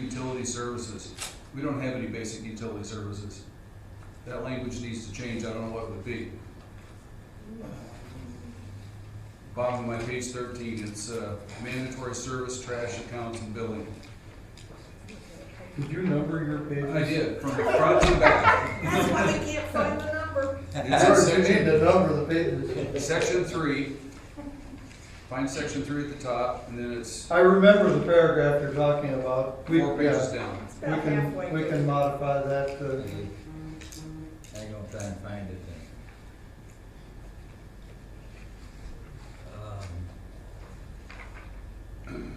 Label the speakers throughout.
Speaker 1: utility services. We don't have any basic utility services. That language needs to change, I don't know what it would be. Bottom of my page thirteen, it's, uh, mandatory service, trash accounts and billing.
Speaker 2: Did you number your pages?
Speaker 1: I did, from the front to the back.
Speaker 3: That's why we can't find the number.
Speaker 2: It's hard
Speaker 1: It's in
Speaker 2: to
Speaker 1: section-
Speaker 2: need to number the pages.
Speaker 1: Section three, find section three at the top, and then it's
Speaker 2: I remember the paragraph you're talking about. We,
Speaker 1: four pages
Speaker 2: yeah,
Speaker 1: down.
Speaker 3: It's
Speaker 2: we
Speaker 3: about halfway
Speaker 2: can, we
Speaker 3: through.
Speaker 2: can modify that to,
Speaker 4: I'm gonna try and find it then. Um,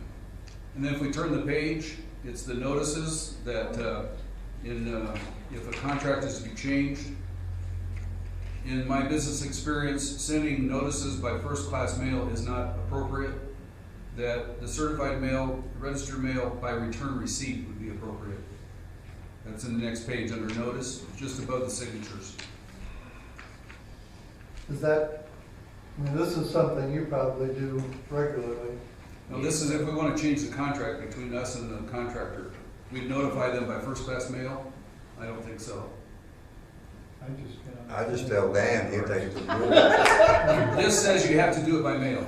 Speaker 1: And then if we turn the page, it's the notices that, uh, in, uh, if a contract is to be changed. In my business experience, sending notices by first-class mail is not appropriate. That the certified mail, registered mail by return receipt would be appropriate. That's in the next page under notice, just above the signatures.
Speaker 2: is that, I mean, this is something you probably do regularly.
Speaker 1: No, this is if we wanna change the contract between us and the contractor. We'd notify them by first-class mail? I don't think so.
Speaker 2: I just. you know-
Speaker 5: I just tell Dan, he takes the rule.
Speaker 1: This says you have to do it by mail.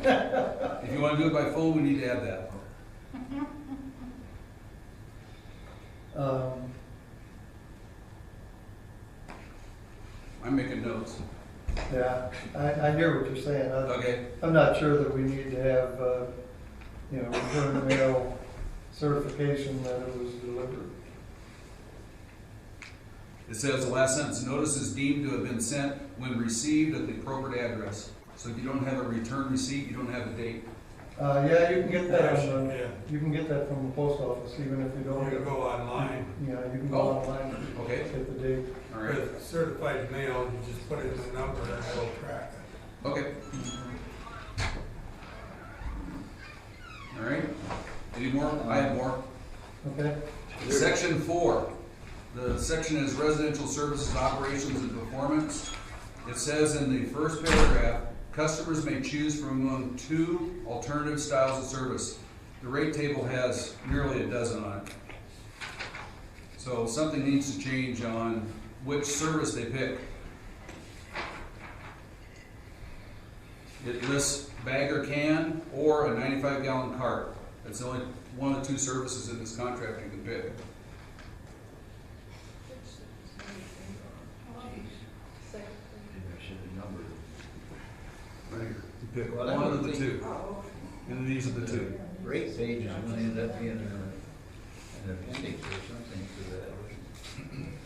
Speaker 1: If you wanna do it by phone, we need to add that.
Speaker 2: Um,
Speaker 1: I'm making notes.
Speaker 2: yeah, I, I hear what you're saying. I,
Speaker 1: Okay,
Speaker 2: I'm not sure that we need to have, uh, you know, return mail certification that it was delivered.
Speaker 1: it says the last sentence, notice is deemed to have been sent when received at the appropriate address. So if you don't have a return receipt, you don't have a date.
Speaker 2: Uh, yeah, you can get that, on the-
Speaker 6: Yeah.
Speaker 2: you can get that from the post office, even if you
Speaker 6: You
Speaker 2: don't.
Speaker 6: can go online,
Speaker 2: You know, you can go
Speaker 1: Oh.
Speaker 2: online and
Speaker 1: Okay,
Speaker 2: get the date.
Speaker 1: all right,
Speaker 6: with certified mail, you just put in the number and it'll track it.
Speaker 1: okay. All right, any more? I have more.
Speaker 2: Okay,
Speaker 1: Section four, the section is residential services, operations, and performance. It says in the first paragraph, customers may choose from among two alternative styles of service. The rate table has nearly a dozen on it. So something needs to change on which service they pick. It lists bag or can, or a ninety-five gallon cart. That's the only one of the two services in this contract you can pick.
Speaker 4: maybe I should have numbered it.
Speaker 1: Right here. You pick
Speaker 4: Well,
Speaker 1: one
Speaker 4: that
Speaker 1: of
Speaker 4: would
Speaker 1: the
Speaker 4: be-
Speaker 1: two,
Speaker 3: Oh,
Speaker 1: and these are the two.
Speaker 4: Rate page is gonna end up being a- an appendix or something to that.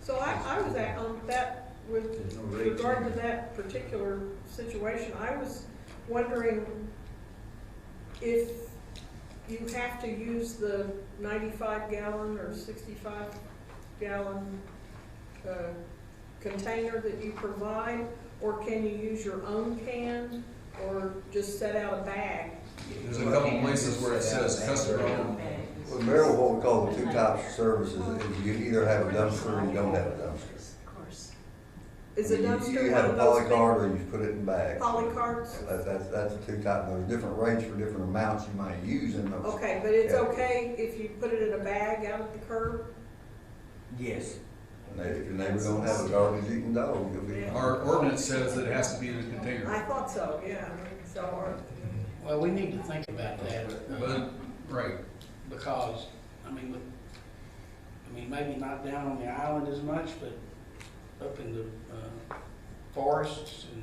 Speaker 3: So I, I was at, um, that, with
Speaker 4: There's no rate.
Speaker 3: regard to that particular situation, I was wondering if you have to use the ninety-five gallon or sixty-five gallon, uh, container that you provide, or can you use your own can, or just set out a bag?
Speaker 1: There's a couple places where it says customer owned.
Speaker 5: Well, Merrill, what we call the two types of services is you either have a dumpster or you don't have a dumpster.
Speaker 7: Of course.
Speaker 3: Is a
Speaker 5: You-
Speaker 3: dumpster
Speaker 5: You
Speaker 3: one
Speaker 5: have
Speaker 3: of
Speaker 5: a
Speaker 3: those big
Speaker 5: polycard or you put it in bags.
Speaker 3: polycards?
Speaker 5: That, that's, that's the two types, there's different rates for different amounts you might use in those.
Speaker 3: Okay, but it's
Speaker 5: Yeah.
Speaker 3: okay if you put it in a bag out at the curb?
Speaker 4: Yes.
Speaker 5: And if your neighbor don't have a garbage eating dog, you'll be.
Speaker 3: Yeah.
Speaker 1: Our ordinance says that it has to be in a
Speaker 3: I
Speaker 1: container,
Speaker 3: thought so, yeah, so, or,
Speaker 8: Well, we need to think about that, uh,
Speaker 1: but, right,
Speaker 8: because, I mean, with, I mean, maybe not down on the island as much, but up in the, uh, forests and,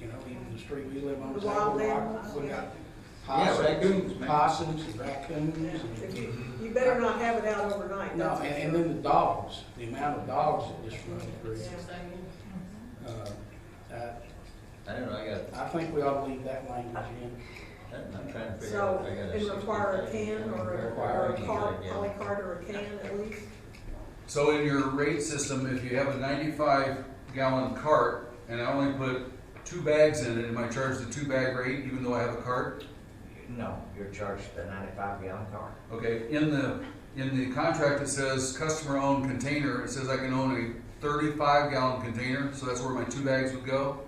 Speaker 8: you know, even the street we live on,
Speaker 3: The
Speaker 8: is like a
Speaker 3: wildlands,
Speaker 8: rock, we got
Speaker 4: Yeah, raccoons,
Speaker 8: possums,
Speaker 4: man.
Speaker 8: possums and raccoons.
Speaker 3: if
Speaker 8: and-
Speaker 3: you, you better not have it out overnight,
Speaker 8: No,
Speaker 3: that's for
Speaker 8: and, and
Speaker 3: sure.
Speaker 8: then the dogs, the amount of dogs that just run through. Uh, I,
Speaker 4: I don't know, I got,
Speaker 8: I think we ought to leave that language in.
Speaker 4: I'm trying to figure
Speaker 3: So,
Speaker 4: out. if I got
Speaker 3: and require a
Speaker 4: 65.
Speaker 3: can or a,
Speaker 4: Require
Speaker 3: or a
Speaker 4: can,
Speaker 3: card,
Speaker 4: yeah.
Speaker 3: polycard or a can at least?
Speaker 1: So in your rate system, if you have a ninety-five gallon cart and I only put two bags in it, am I charged the two bag rate even though I have a cart?
Speaker 9: No, you're charged the ninety-five gallon car.
Speaker 1: Okay, in the, in the contract, it says customer owned container, it says I can own a thirty-five gallon container, so that's where my two bags would go.